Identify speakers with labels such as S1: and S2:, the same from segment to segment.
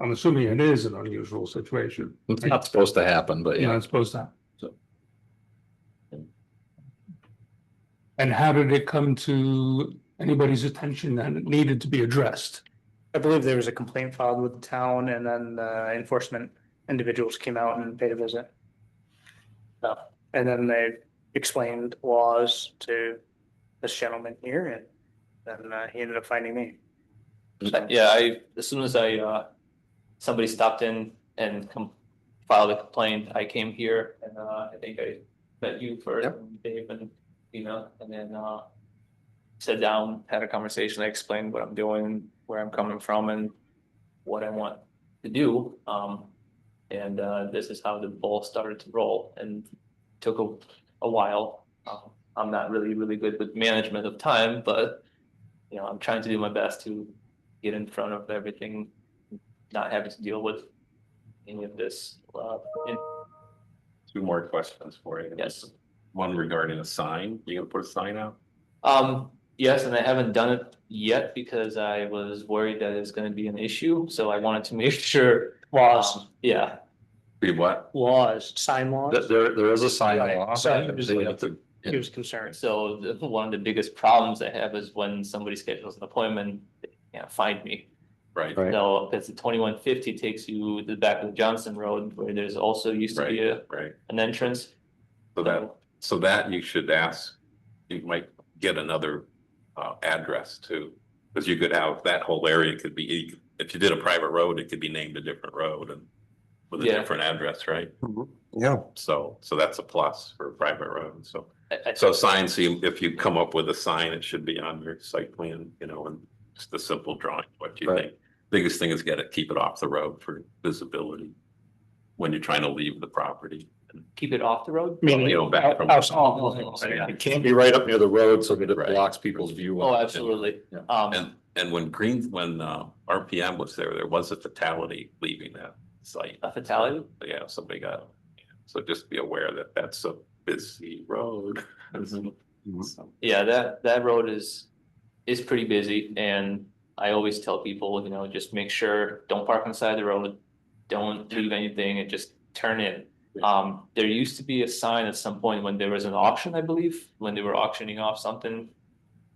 S1: I'm assuming it is an unusual situation.
S2: It's not supposed to happen, but
S1: You know,
S2: yeah,
S1: it's supposed to. So. And how did it come to anybody's attention that it needed to be addressed?
S3: I believe there was a complaint filed with the town and then uh, enforcement individuals came out and paid a visit. So, And then they explained laws to this gentleman here and then uh, he ended up finding me.
S4: Uh, Yeah, I, as soon as I, uh, somebody stopped in and com- filed a complaint, I came here and, uh, I think I met you first,
S2: Yep.
S4: and Dave and, you know, and then, uh, sat down, had a conversation, I explained what I'm doing, where I'm coming from and what I want to do. Um, and, uh, this is how the ball started to roll and took a, a while. Um, I'm not really, really good with management of time, but, you know, I'm trying to do my best to get in front of everything, not having to deal with any of this. uh, in-
S5: Two more questions for you.
S4: Yes.
S5: One regarding a sign, you gonna put a sign out?
S4: Um, yes, and I haven't done it yet because I was worried that it's gonna be an issue, so I wanted to make sure.
S3: Laws,
S4: um, Yeah,
S5: Be what?
S3: laws, sign
S2: Th-
S3: laws.
S2: there, there is a sign
S4: Right.
S2: law.
S3: So you
S4: just-
S2: They have to-
S3: He was concerned.
S4: so the- one of the biggest problems I have is when somebody schedules an appointment, they can't find me.
S5: Right,
S2: Right.
S4: So, because the twenty-one fifty takes you to the back of Johnson Road where there's also used to be a,
S5: right.
S4: an entrance.
S5: So that, so that you should ask, you might get another uh address too. Cause you could have, that whole area could be, if you did a private road, it could be named a different road and with a
S4: Yeah.
S5: different address, right?
S2: Yeah.
S5: So, so that's a plus for a private road, so.
S4: I- I-
S5: So signs, you- if you come up with a sign, it should be on your site plan, you know, and just a simple drawing, what do you
S2: Right.
S5: think. Biggest thing is get it, keep it off the road for visibility when you're trying to leave the property.
S4: Keep it off the road?
S3: Meaning
S5: You know, back from-
S3: outs- all-
S5: Yeah.
S2: It can't be right up near the road so that it
S5: Right.
S2: blocks people's view.
S4: Oh, absolutely.
S2: Yeah.
S4: Um,
S5: And, and when Green, when uh, RPM was there, there was a fatality leaving that site.
S4: a fatality?
S5: Yeah, somebody got, so just be aware that that's a busy road.
S2: Mm-hmm.
S5: So,
S4: Yeah, that, that road is, is pretty busy and I always tell people, you know, just make sure, don't park on the side of the road. Don't leave anything and just turn in. Um, there used to be a sign at some point when there was an auction, I believe, when they were auctioning off something.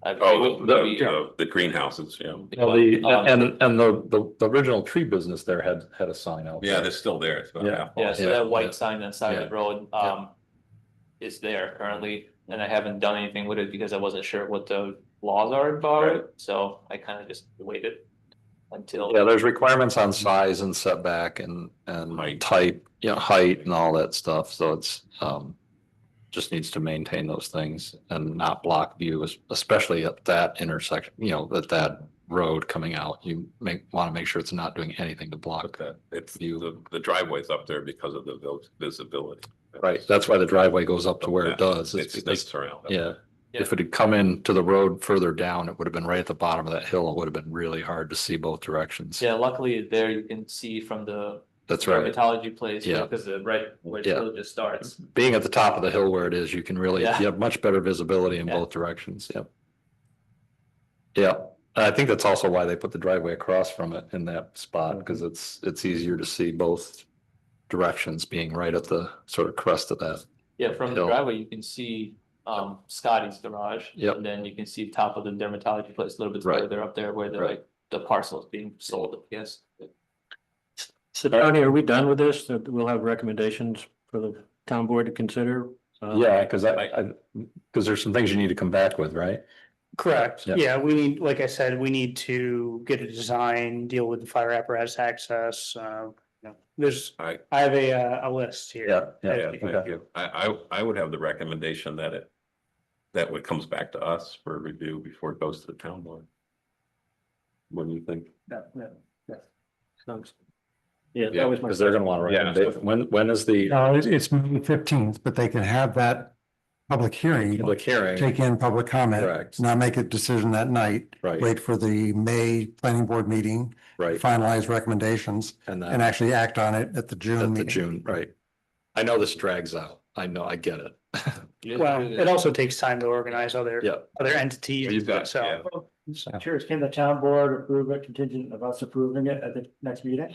S4: I-
S5: Oh, the,
S4: we-
S5: the- the greenhouses, yeah.
S2: Well, the,
S4: Um,
S2: and, and the, the, the original tree business there had, had a sign out.
S5: Yeah,
S2: there.
S5: they're still there. It's about
S2: Yeah.
S5: half
S4: Yeah,
S5: off.
S4: so
S2: Yeah,
S4: that
S2: yeah.
S4: white sign on the side of the road,
S2: yeah.
S4: um, is there currently, and I haven't done anything with it because I wasn't sure what the laws are about
S5: Right.
S4: it, so I kind of just waited until.
S2: Yeah, there's requirements on size and setback and,
S5: Height.
S2: and type, you know, height and all that stuff, so it's, um. Just needs to maintain those things and not block view, es- especially at that intersection, you know, at that road coming out. You make, want to make sure it's not doing anything to
S5: But
S2: block.
S5: that, it's,
S2: You-
S5: the, the driveway's up there because of the vis- visibility.
S2: Right, that's why the driveway goes up to where it does,
S5: It
S2: is because
S5: sneaks around.
S2: Yeah, if it had come in to the road further down, it would have been right at the bottom of that hill. It would have been really hard to see both directions.
S4: Yeah, luckily there you can see from the
S2: That's right.
S4: dermatology place,
S2: Yeah.
S4: because the right where the
S2: Yeah.
S4: road just starts.
S2: Being at the top of the hill where it is, you can really, you
S4: Yeah.
S2: have much better visibility in
S4: Yeah.
S2: both directions. Yep. Yeah, and I think that's also why they put the driveway across from it in that spot, because it's, it's easier to see both directions being right at the sort of crest of that.
S4: Yeah, from the
S2: Hill.
S4: driveway, you can see um Scotty's garage.
S2: Yep.
S4: And then you can see top of the dermatology place a little bit
S2: Right.
S4: further up there where the
S2: Right.
S4: like the parcel is being sold, yes.
S6: So Tony, are we done with this? That we'll have recommendations for the town board to consider? Uh,
S4: Uh-huh.
S2: Yeah, because I, because there's some things you need to come back with, right?
S3: Correct.
S2: Yeah.
S3: Yeah, we need, like I said, we need to get a design, deal with the fire apparatus access, uh, you know, there's,
S5: I-
S3: I have a, uh, a list here.
S5: Yeah,
S3: Okay.
S5: thank you. I, I, I would have the recommendation that it, that what comes back to us for review before it goes to the town board. What do you think?
S6: sounds- Yeah,
S5: Yeah,
S6: that was my.
S2: Because they're gonna want to,
S5: Yeah.
S2: recommend- when, when is the
S7: No, it's, it's May fifteenth, but they can have that public hearing,
S2: public hearing?
S7: take in public comment,
S2: Correct,
S7: not make a decision that night.
S2: right,
S7: Wait for the May planning board meeting,
S2: right.
S7: finalize recommendations
S2: And then
S7: and
S2: at
S7: actually act on it at the June
S2: the
S7: meeting.
S2: June, right. I know this drags out. I know, I get it.
S3: Well, it also takes time to organize other,
S2: Yeah.
S3: other entities,
S5: You've got-
S3: so.
S5: yeah.
S6: Sure, can the town board approve it contingent of us approving it at the next meeting?